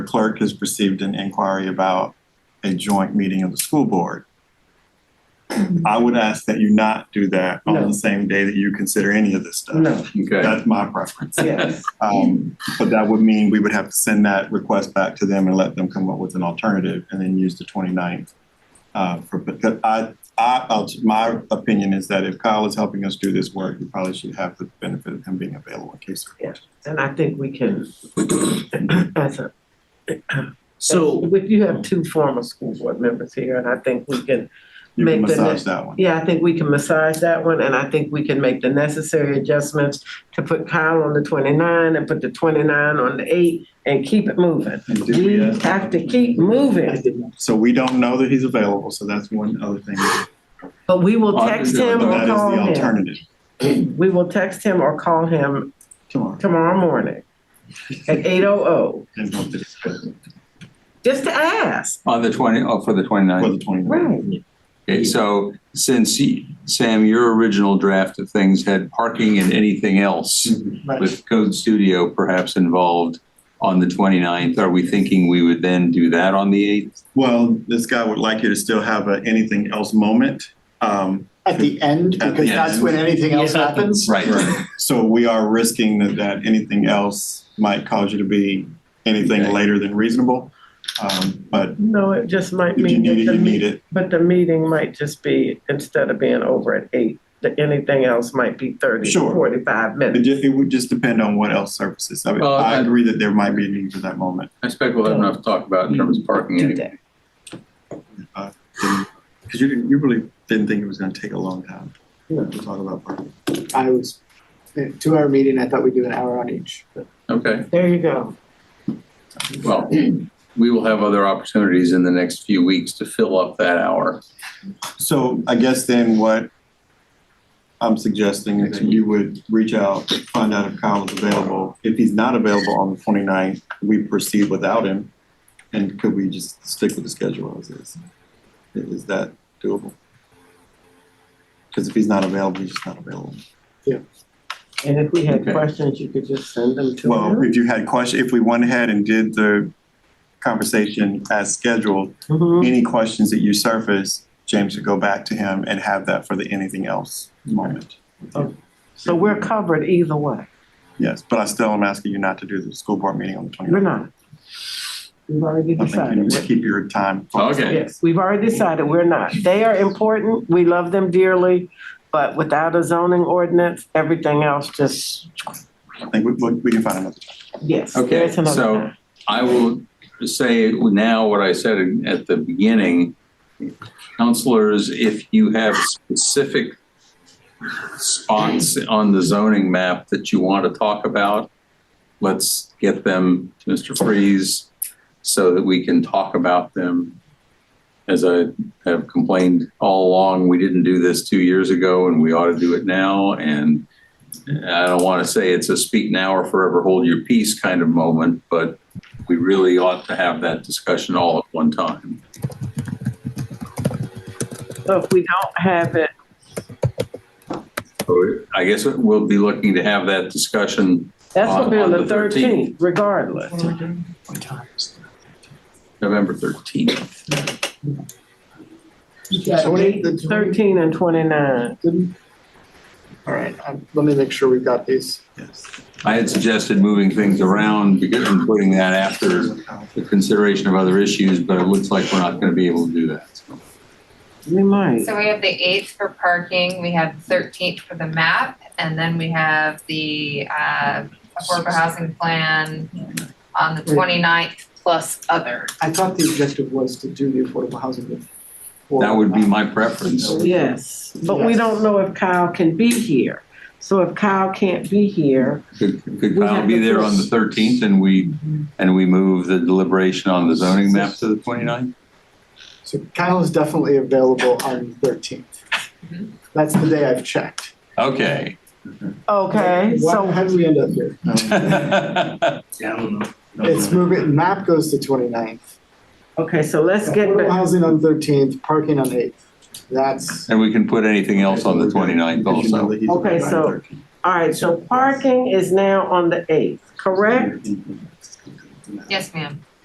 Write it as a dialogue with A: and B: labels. A: clerk has received an inquiry about a joint meeting of the school board. I would ask that you not do that on
B: No.
A: the same day that you consider any of this stuff.
B: No,
C: Okay,
A: That's my preference.
B: yes,
A: Um, but that would mean we would have to send that request back to them and let them come up with an alternative and then use the 29th. Uh, for, because I, I, uh, my opinion is that if Kyle is helping us do this work, we probably should have the benefit of him being available in case. of-
B: Yeah. and I think we can, as a,
D: So,
B: with, you have two former school board members here, and I think we can,
A: You can
B: Make the
A: massage
B: next-
A: that one.
B: yeah, I think we can massage that one, and I think we can make the necessary adjustments to put Kyle on the twenty-nine and put the twenty-nine on the eight and keep it moving.
A: And did
B: We
A: ask-
B: have to keep moving,
A: So we don't know that he's available, so that's one other thing.
B: but we will
C: Oh,
B: text
C: yeah,
B: him
A: But that
B: or
A: is the
B: call
A: alternative
B: him. We will text him or call him
A: tomorrow.
B: tomorrow morning at eight oh oh,
A: And hope that it's good
B: just to ask.
C: on the twenty, oh, for the
A: For
C: twenty-ninth.
A: the 29th.
B: Right.
C: Okay, so since, you- Sam, your original draft of things had parking and anything else
A: Mm-hmm.
C: with Code Studio perhaps involved on the 29th, are we thinking we would then do that on the eighth?
A: Well, this guy would like you to still have a anything else moment. Um,
E: At the end,
A: At the
E: because that's
A: end.
E: when anything else happens.
A: So we are risking that, that anything else might cause you to be anything
C: Okay.
A: later than reasonable. Um, but
B: No, it just might
A: if you
B: mean
A: need it,
B: that the
A: you need
B: meeting,
A: it.
B: but the meeting might just be, instead of being over at eight, that anything else might be thirty,
A: Sure.
B: forty-five
A: It
B: minutes.
A: just, it would just depend on what else surfaces. I mean,
C: Well,
A: I
C: I-
A: agree that there might be a need for that moment.
C: I expect we'll have enough to talk about in terms of parking
B: Do that.
A: Cause you didn't, you really didn't think it was gonna take a long time
E: No.
A: to talk about parking.
E: I was, uh, two hour meeting, I thought we'd do an hour on each. but-
C: Okay,
B: There you go.
C: well, we will have other opportunities in the next few weeks to fill up that hour.
A: So I guess then what I'm suggesting is that you would reach out, find out if Kyle is available. If he's not available on the 29th, we proceed without him. And could we just stick with the schedule as is? Is that doable? Because if he's not available, he's just not available.
B: And if we had
C: Okay.
B: questions, you could just send them to
A: Well,
B: him.
A: if you had question, if we went ahead and did the conversation as scheduled,
B: Mhm.
A: any questions that you surface, James would go back to him and have that for the anything else moment.
B: So we're covered either way.
A: Yes, but I still am asking you not to do the school board meeting on the
B: We're
A: 29th.
B: not. We've already
A: I think you
B: decided.
A: need to keep your time. focused.
B: Yes, we've already decided we're not. They are important. We love them dearly. But without a zoning ordinance, everything else just,
A: I think we, we we can find another.
B: yes.
C: Okay,
B: there's another
C: so-
B: time.
C: I will say now what I said at the beginning. Counselors, if you have specific spots on the zoning map that you want to talk about, let's get them to Mr. Freeze so that we can talk about them. As I have complained all along, we didn't do this two years ago and we ought to do it now. And I don't want to say it's a speak now or forever hold your peace kind of moment, but we really ought to have that discussion all at one time.
B: So if we don't have it,
C: So I guess we'll be looking to have that discussion
B: that's gonna be on
C: On-
B: the
C: on the 13th.
B: thirteenth regardless.
C: November 13th.
E: So what is the-
B: Thirteen and twenty-nine.
E: All right, um, let me make sure we've got these.
A: Yes.
C: I had suggested moving things around because I'm putting that after the consideration of other issues, but it looks like we're not going to be able to do that. so.
B: We might.
F: So we have the eighth for parking, we have the thirteenth for the map, and then we have the uh affordable housing plan on the 29th plus other.
E: I thought the objective was to do the affordable housing before.
C: That would be my preference.
B: Yes, but we
E: Yes.
B: don't know if Kyle can be here. So if Kyle can't be here,
C: Could could Kyle be there on the 13th and we, and we move the deliberation on the zoning map to the 29th?
E: So Kyle is definitely available on thirteenth.
B: Mm-hmm.
F: Mhm.
E: That's the day I've checked.
C: Okay.
B: okay,
E: Why-
B: so
E: How did we end up here? It's moving, map goes to 29th.
B: okay, so let's get
E: Affordable
B: back.
E: housing on thirteenth, parking on eighth. That's,
C: And we can put anything else on the 29th
A: Because you know
C: also.
A: that he's
B: Okay,
A: available
B: so-
A: on the 13th.
B: All right, so parking is now on the eighth, correct?
F: Yes, ma'am.